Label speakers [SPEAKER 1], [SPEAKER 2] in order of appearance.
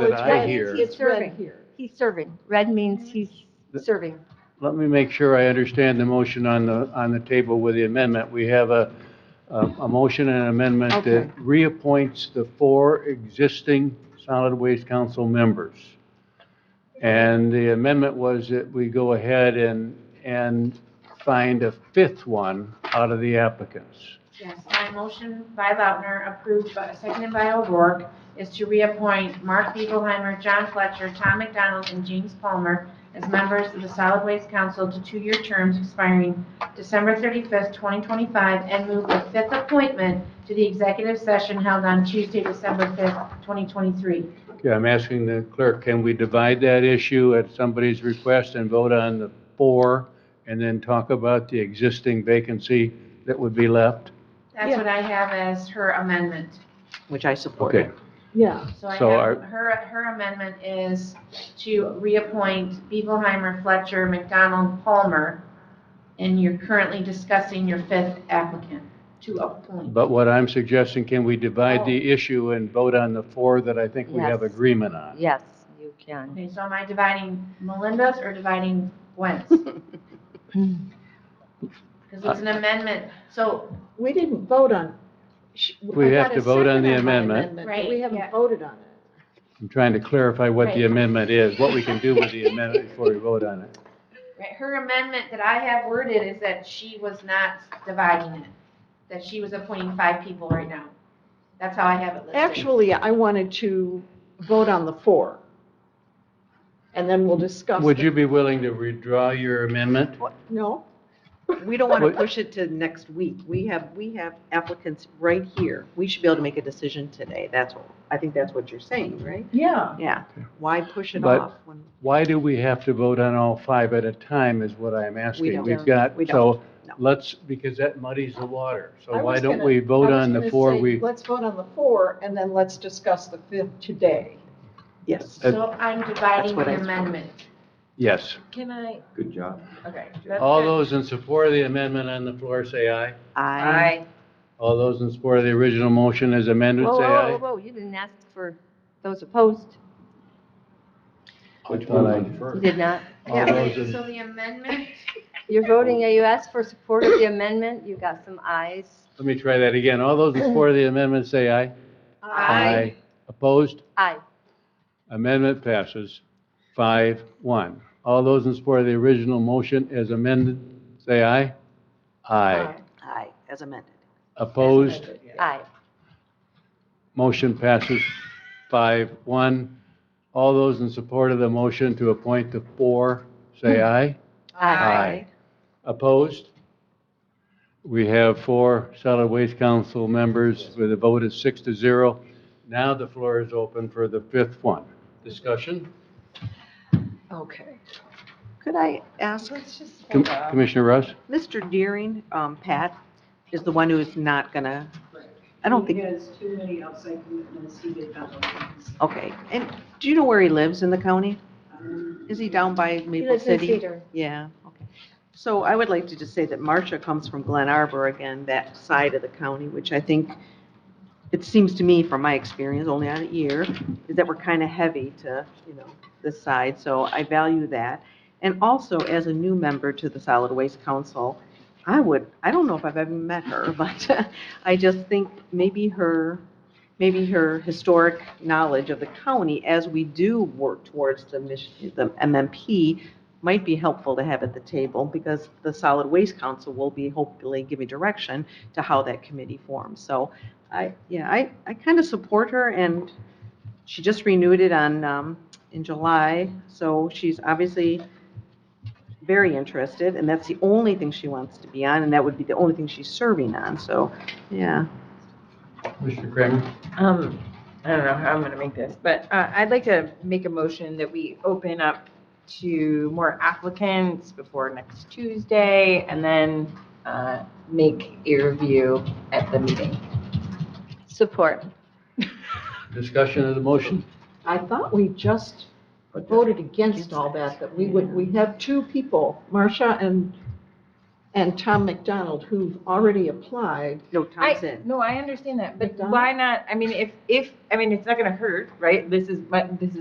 [SPEAKER 1] that
[SPEAKER 2] Oh, it's
[SPEAKER 1] I
[SPEAKER 2] red.
[SPEAKER 1] hear,
[SPEAKER 2] It's
[SPEAKER 3] Serving.
[SPEAKER 2] red here.
[SPEAKER 3] He's serving. Red means he's serving.
[SPEAKER 1] let me make sure I understand the motion on the, on the table with the amendment. We have a, a, a motion and an amendment
[SPEAKER 3] Okay.
[SPEAKER 1] that reappoints the four existing solid waste council members. And the amendment was that we go ahead and, and find a fifth one out of the applicants.
[SPEAKER 4] Yes, my motion by Lautner, approved by, seconded by O'Rourke, is to reappoint Mark Beagleheimer, John Fletcher, Tom McDonald, and James Palmer as members of the Solid Waste Council to two-year terms expiring December 35th, 2025, and move the fifth appointment to the executive session held on Tuesday, December 5th, 2023.
[SPEAKER 1] Okay, I'm asking the clerk, can we divide that issue at somebody's request and vote on the four, and then talk about the existing vacancy that would be left?
[SPEAKER 4] That's what I have as her amendment.
[SPEAKER 3] Which I support.
[SPEAKER 1] Okay,
[SPEAKER 2] Yeah,
[SPEAKER 4] So I
[SPEAKER 1] So
[SPEAKER 4] have,
[SPEAKER 1] are-
[SPEAKER 4] her, her amendment is to reappoint Beagleheimer, Fletcher, McDonald, Palmer, and you're currently discussing your fifth applicant to appoint.
[SPEAKER 1] but what I'm suggesting, can we divide the issue and vote on the four that I think we have
[SPEAKER 3] Yes.
[SPEAKER 1] agreement on?
[SPEAKER 3] Yes, you can.
[SPEAKER 4] Okay, so am I dividing Melinda's or dividing Gwen's? Because it's an amendment, so,
[SPEAKER 2] we didn't vote on. sh-
[SPEAKER 1] We
[SPEAKER 2] I
[SPEAKER 1] have
[SPEAKER 2] got
[SPEAKER 1] to
[SPEAKER 2] a
[SPEAKER 1] vote
[SPEAKER 2] second
[SPEAKER 1] on the
[SPEAKER 2] my
[SPEAKER 1] amendment.
[SPEAKER 2] but
[SPEAKER 4] Right,
[SPEAKER 2] We haven't
[SPEAKER 4] yeah.
[SPEAKER 2] voted on it.
[SPEAKER 1] I'm trying to clarify what the
[SPEAKER 4] Right.
[SPEAKER 1] amendment is, what we can do with the amendment before we vote on it.
[SPEAKER 4] right, her amendment that I have worded is that she was not dividing it, that she was appointing five people right now. That's how I have it listed.
[SPEAKER 2] Actually, I wanted to vote on the four. And then we'll discuss.
[SPEAKER 1] Would
[SPEAKER 2] the-
[SPEAKER 1] you be willing to withdraw your amendment?
[SPEAKER 2] No,
[SPEAKER 5] We don't want to
[SPEAKER 1] What-
[SPEAKER 5] push it to next week. We have, we have applicants right here. We should be able to make a decision today. That's, what I think that's what you're saying, right?
[SPEAKER 2] yeah.
[SPEAKER 5] Yeah. Why push it
[SPEAKER 1] But-
[SPEAKER 5] off when
[SPEAKER 1] Why do we have to vote on all five at a time is what I'm asking.
[SPEAKER 5] don't.
[SPEAKER 1] We've got,
[SPEAKER 5] We don't.
[SPEAKER 1] so
[SPEAKER 5] No.
[SPEAKER 1] let's, because that muddies the water.
[SPEAKER 2] I
[SPEAKER 1] So why
[SPEAKER 2] was
[SPEAKER 1] don't
[SPEAKER 2] gonna-
[SPEAKER 1] we vote
[SPEAKER 2] I was
[SPEAKER 1] on the
[SPEAKER 2] gonna
[SPEAKER 1] four
[SPEAKER 2] say,
[SPEAKER 1] we,
[SPEAKER 2] Let's vote on the four and then let's discuss the fifth today.
[SPEAKER 5] Yes.
[SPEAKER 1] Uh,
[SPEAKER 4] So I'm dividing
[SPEAKER 5] what
[SPEAKER 4] the
[SPEAKER 5] I told her.
[SPEAKER 4] amendment.
[SPEAKER 1] yes.
[SPEAKER 4] Can I?
[SPEAKER 6] Good job.
[SPEAKER 4] Okay.
[SPEAKER 1] All those in support of the amendment on the floor say aye.
[SPEAKER 5] I,
[SPEAKER 1] All those in support of the original motion as amended
[SPEAKER 3] Whoa,
[SPEAKER 1] say
[SPEAKER 3] whoa, whoa,
[SPEAKER 1] aye.
[SPEAKER 3] whoa, you didn't ask for those opposed.
[SPEAKER 6] Which
[SPEAKER 1] one
[SPEAKER 6] one
[SPEAKER 1] was
[SPEAKER 3] You
[SPEAKER 6] first?
[SPEAKER 3] did not.
[SPEAKER 1] All those in-
[SPEAKER 4] So the amendment,
[SPEAKER 3] You're voting, you asked for support of the amendment, you got some ayes.
[SPEAKER 1] Let me try that again. All those in support of the amendment say aye.
[SPEAKER 4] Aye.
[SPEAKER 1] Opposed?
[SPEAKER 3] Aye.
[SPEAKER 1] Amendment passes five, one. All those in support of the original motion as amended say aye. Aye.
[SPEAKER 5] I, as amended.
[SPEAKER 1] Opposed?
[SPEAKER 3] Aye.
[SPEAKER 1] Motion passes five, one. All those in support of the motion to appoint the four, say aye. Aye. Opposed? We have four solid waste council members with a vote of six to zero. Now the floor is open for the fifth one. Discussion?
[SPEAKER 2] Okay.
[SPEAKER 5] Could I ask,
[SPEAKER 1] Com- Commissioner Russ?
[SPEAKER 5] Mr. Deering, um, Pat is the one who is not gonna, I don't think,
[SPEAKER 7] He has too many outside commitments, he did not. want to.
[SPEAKER 5] okay. And do you know where he lives in the county?
[SPEAKER 7] Um,
[SPEAKER 5] Is he down by Maple City? Yeah, okay. So I would like to just say that Marcia comes from Glen Arbor, again, that side of the county, which I think, it seems to me, from my experience, only on a year, is that we're kind of heavy to, you know, this side, so I value that. And also, as a new member to the Solid Waste Council, I would, I don't know if I've ever met her, but I just think maybe her, maybe her historic knowledge of the county, as we do work towards the mission, the MMP, might be helpful to have at the table because the Solid Waste Council will be hopefully giving direction to how that committee forms. So I, yeah, I, I kind of support her and she just renewed it on, um, in July. So she's obviously very interested and that's the only thing she wants to be on and that would be the only thing she's serving on. So, yeah.
[SPEAKER 1] Commissioner Kramer?
[SPEAKER 8] Um, I don't know how I'm gonna make this, but uh, I'd like to make a motion that we open up to more applicants before next Tuesday and then uh, make a review at the meeting.
[SPEAKER 3] Support.
[SPEAKER 1] Discussion of the motion?
[SPEAKER 2] I thought we just voted against all that, that we would, we have two people, Marcia and and Tom McDonald, who've already applied.
[SPEAKER 9] No, Tom's
[SPEAKER 5] I,
[SPEAKER 9] in.
[SPEAKER 5] no, I understand that, but
[SPEAKER 2] McDonald's?
[SPEAKER 5] why not, I mean, if, if, I mean, it's not gonna hurt, right? This is, my- this is